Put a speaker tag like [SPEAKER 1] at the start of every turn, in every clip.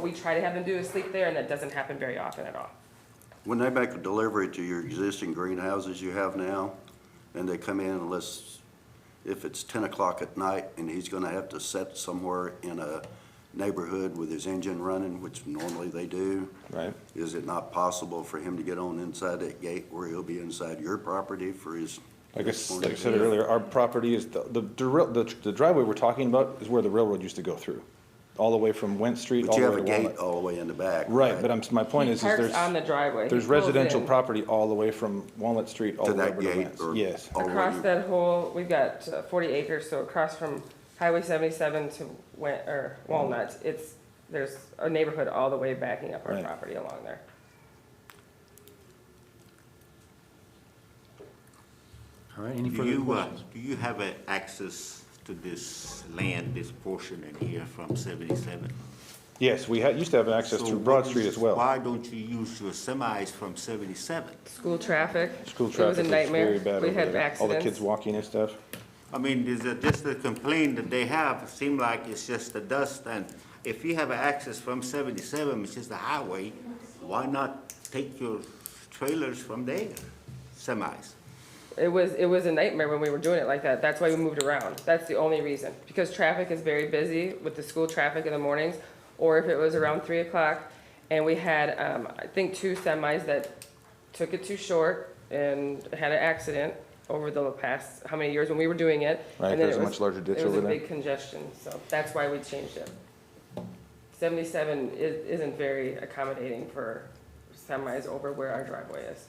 [SPEAKER 1] What we try to have them do is sleep there, and that doesn't happen very often at all.
[SPEAKER 2] When they make a delivery to your existing greenhouses you have now, and they come in unless, if it's ten o'clock at night and he's gonna have to set somewhere in a neighborhood with his engine running, which normally they do.
[SPEAKER 3] Right.
[SPEAKER 2] Is it not possible for him to get on inside that gate where he'll be inside your property for his?
[SPEAKER 3] Like I, s- like I
[SPEAKER 2] transportation?
[SPEAKER 3] said earlier, our property is, the, the dri- the the driveway we're talking about is where the railroad used to go through, all the way from Went Street,
[SPEAKER 2] But
[SPEAKER 3] all
[SPEAKER 2] you
[SPEAKER 3] the
[SPEAKER 2] have
[SPEAKER 3] way
[SPEAKER 2] a
[SPEAKER 3] to
[SPEAKER 2] gate
[SPEAKER 3] Walnut.
[SPEAKER 2] all the way in the back.
[SPEAKER 3] Right, but I'm, my point
[SPEAKER 1] He
[SPEAKER 3] is, is
[SPEAKER 1] parks on the
[SPEAKER 3] there's,
[SPEAKER 1] driveway.
[SPEAKER 3] there's
[SPEAKER 1] He pulls
[SPEAKER 3] residential
[SPEAKER 1] in.
[SPEAKER 3] property all the way from Walnut Street, all
[SPEAKER 2] To
[SPEAKER 3] the way
[SPEAKER 2] that
[SPEAKER 3] over to
[SPEAKER 2] gate
[SPEAKER 3] Lance.
[SPEAKER 2] or-
[SPEAKER 3] Yes,
[SPEAKER 2] or-
[SPEAKER 1] Across
[SPEAKER 2] Already.
[SPEAKER 1] that whole, we've got uh, forty acres, so across from Highway seventy-seven to Wen, or Walnut, it's, there's a neighborhood all the way backing up our
[SPEAKER 3] Right.
[SPEAKER 1] property along there.
[SPEAKER 4] All right, any
[SPEAKER 5] Do
[SPEAKER 4] further
[SPEAKER 5] you, uh,
[SPEAKER 4] questions?
[SPEAKER 5] do you have uh, access to this land, this portion in here from seventy-seven?
[SPEAKER 3] yes, we had, used to have access
[SPEAKER 5] So
[SPEAKER 3] through Broad
[SPEAKER 5] what
[SPEAKER 3] Street
[SPEAKER 5] is-
[SPEAKER 3] as well.
[SPEAKER 5] Why don't you use your semis from seventy-seven?
[SPEAKER 1] School traffic.
[SPEAKER 3] School
[SPEAKER 1] It was
[SPEAKER 3] traffic
[SPEAKER 1] a
[SPEAKER 3] is very
[SPEAKER 1] nightmare.
[SPEAKER 3] bad
[SPEAKER 1] We
[SPEAKER 3] over
[SPEAKER 1] had
[SPEAKER 3] there, all the kids
[SPEAKER 1] accidents.
[SPEAKER 3] walking and stuff.
[SPEAKER 5] I mean, is it just the complaint that they have, it seem like it's just the dust, and if you have access from seventy-seven, which is the highway, why not take your trailers from there, semis?
[SPEAKER 1] It was, it was a nightmare when we were doing it like that. That's why we moved around. That's the only reason. Because traffic is very busy with the school traffic in the mornings, or if it was around three o'clock. And we had, um, I think two semis that took it too short and had an accident over the past, how many years when we were doing it.
[SPEAKER 3] Right,
[SPEAKER 1] And then
[SPEAKER 3] there's
[SPEAKER 1] it
[SPEAKER 3] a
[SPEAKER 1] was-
[SPEAKER 3] much larger ditch
[SPEAKER 1] It was a
[SPEAKER 3] over there.
[SPEAKER 1] big congestion, so that's why we changed it. Seventy-seven is, isn't very accommodating for semis over where our driveway is.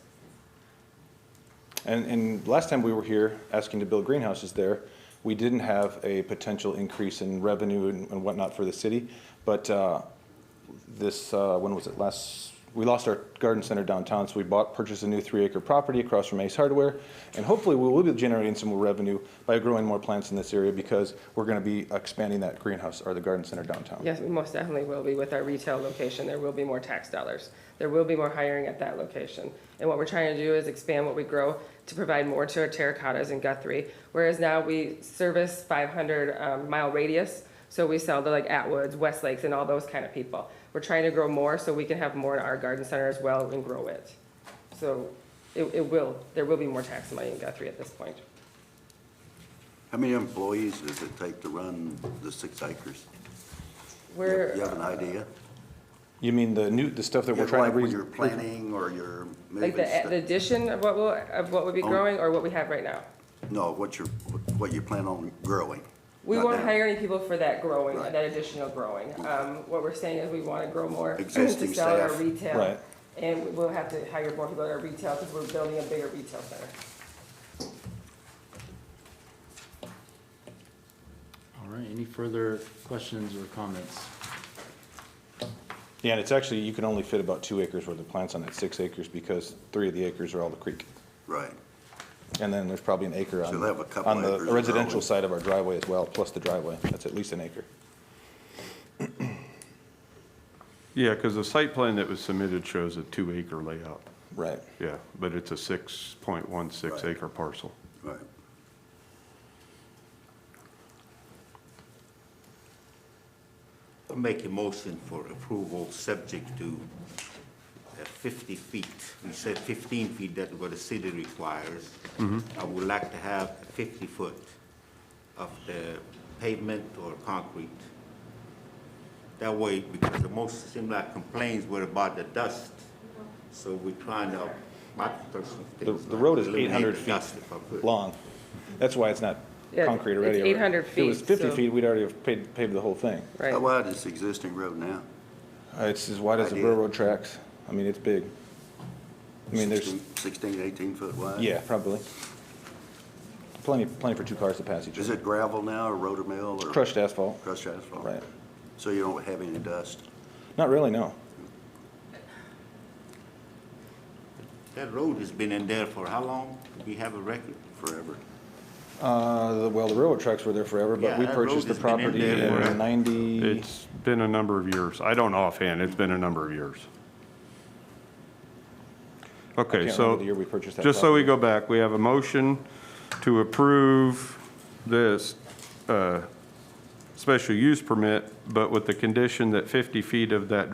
[SPEAKER 3] And, and last time we were here asking to build greenhouses there, we didn't have a potential increase in revenue and and whatnot for the city. But uh, this, uh, when was it last, we lost our garden center downtown, so we bought, purchased a new three acre property across from Ace Hardware. And hopefully we will be generating some more revenue by growing more plants in this area because we're going to be expanding that greenhouse or the garden center downtown.
[SPEAKER 1] Yes, we most definitely will be with our retail location. There will be more tax dollars. There will be more hiring at that location. And what we're trying to do is expand what we grow to provide more to our terracottas in Guthrie. Whereas now we service 500 um, mile radius, so we sell to like Atwoods, Westlakes, and all those kind of people. We're trying to grow more so we can have more in our garden center as well and grow it. So it, it will, there will be more tax money in Guthrie at this point.
[SPEAKER 2] How many employees does it take to run the six acres? You have-
[SPEAKER 1] We're.
[SPEAKER 2] You have an idea?
[SPEAKER 3] You mean the new, the stuff that we're
[SPEAKER 2] Yeah,
[SPEAKER 3] trying
[SPEAKER 2] like
[SPEAKER 3] to.
[SPEAKER 2] When
[SPEAKER 3] re-
[SPEAKER 2] you're planning or you're moving
[SPEAKER 1] Like the,
[SPEAKER 2] stuff?
[SPEAKER 1] the addition of what will, of what would be
[SPEAKER 2] Oh.
[SPEAKER 1] growing or what we have right now?
[SPEAKER 2] No, what you're, what you plan on growing.
[SPEAKER 1] We
[SPEAKER 2] not
[SPEAKER 1] won't
[SPEAKER 2] now.
[SPEAKER 1] hire any people for that growing,
[SPEAKER 2] Right.
[SPEAKER 1] that additional growing. Um, what we're saying is we wanna grow more to
[SPEAKER 2] Existing
[SPEAKER 1] sell at our
[SPEAKER 2] staff.
[SPEAKER 1] retail.
[SPEAKER 3] Right.
[SPEAKER 1] And we'll have to hire more people at our retail, cause we're building a bigger retail center.
[SPEAKER 4] All right, any further questions or comments?
[SPEAKER 3] Yeah, and it's actually, you can only fit about two acres worth of plants on that six acres because three of the acres are all the creek.
[SPEAKER 2] Right.
[SPEAKER 3] And then there's probably an acre on,
[SPEAKER 2] So they have a couple
[SPEAKER 3] on the
[SPEAKER 2] acres of driveway.
[SPEAKER 3] residential side of our driveway as well, plus the driveway. That's at least an acre.
[SPEAKER 6] Yeah, because the site plan that was submitted shows a two-acre layout,
[SPEAKER 3] Right.
[SPEAKER 6] yeah, but it's a 6.16
[SPEAKER 2] Right.
[SPEAKER 6] acre parcel.
[SPEAKER 2] Right.
[SPEAKER 5] I'll Make a motion for approval, subject to uh, 50 feet. We said 15 feet, that's what the city requires.
[SPEAKER 3] Mm-hmm.
[SPEAKER 5] I would like to have 50 foot of the pavement or concrete. That way, because the most, seem like complaints were about the dust, so we're trying to, my personal
[SPEAKER 3] The,
[SPEAKER 5] things.
[SPEAKER 3] the road is
[SPEAKER 5] like eliminate
[SPEAKER 3] 800
[SPEAKER 5] the
[SPEAKER 3] feet
[SPEAKER 5] dust if I could.
[SPEAKER 3] long. That's why it's not
[SPEAKER 1] Yeah,
[SPEAKER 3] concrete
[SPEAKER 1] it's
[SPEAKER 3] already.
[SPEAKER 1] 800
[SPEAKER 3] If it was
[SPEAKER 1] feet,
[SPEAKER 3] 50
[SPEAKER 1] so-
[SPEAKER 3] feet, we'd already have paved, paved the whole thing.
[SPEAKER 1] Right.
[SPEAKER 2] How wide is the existing road now?
[SPEAKER 3] Uh, It's as wide as the
[SPEAKER 2] Idea.
[SPEAKER 3] railroad tracks. I mean, it's big. I mean, there's,
[SPEAKER 2] 16 Sixteen, eighteen foot wide?
[SPEAKER 3] yeah, probably. Plenty, plenty for two cars to pass each
[SPEAKER 2] Is
[SPEAKER 3] other.
[SPEAKER 2] it gravel now or rotor mill or?
[SPEAKER 3] Crushed asphalt.
[SPEAKER 2] Crushed asphalt?
[SPEAKER 3] Right.
[SPEAKER 2] So you don't have any dust?
[SPEAKER 3] Not really, no.
[SPEAKER 5] That road has been in there for how long? Do we have a record?
[SPEAKER 2] forever.
[SPEAKER 3] Uh, the- well, the railroad tracks were there forever,
[SPEAKER 5] Yeah,
[SPEAKER 3] but we
[SPEAKER 5] that
[SPEAKER 3] purchased the
[SPEAKER 5] road has been in
[SPEAKER 3] property
[SPEAKER 5] there
[SPEAKER 3] in
[SPEAKER 5] forever.
[SPEAKER 3] ninety,
[SPEAKER 6] It's been a number of years. I don't offhand, it's been a number of years.
[SPEAKER 3] I
[SPEAKER 6] Okay,
[SPEAKER 3] can't
[SPEAKER 6] so,
[SPEAKER 3] remember the year we purchased that
[SPEAKER 6] just so we go back, we have a motion to approve this uh, special use permit, but with the condition that 50 feet of that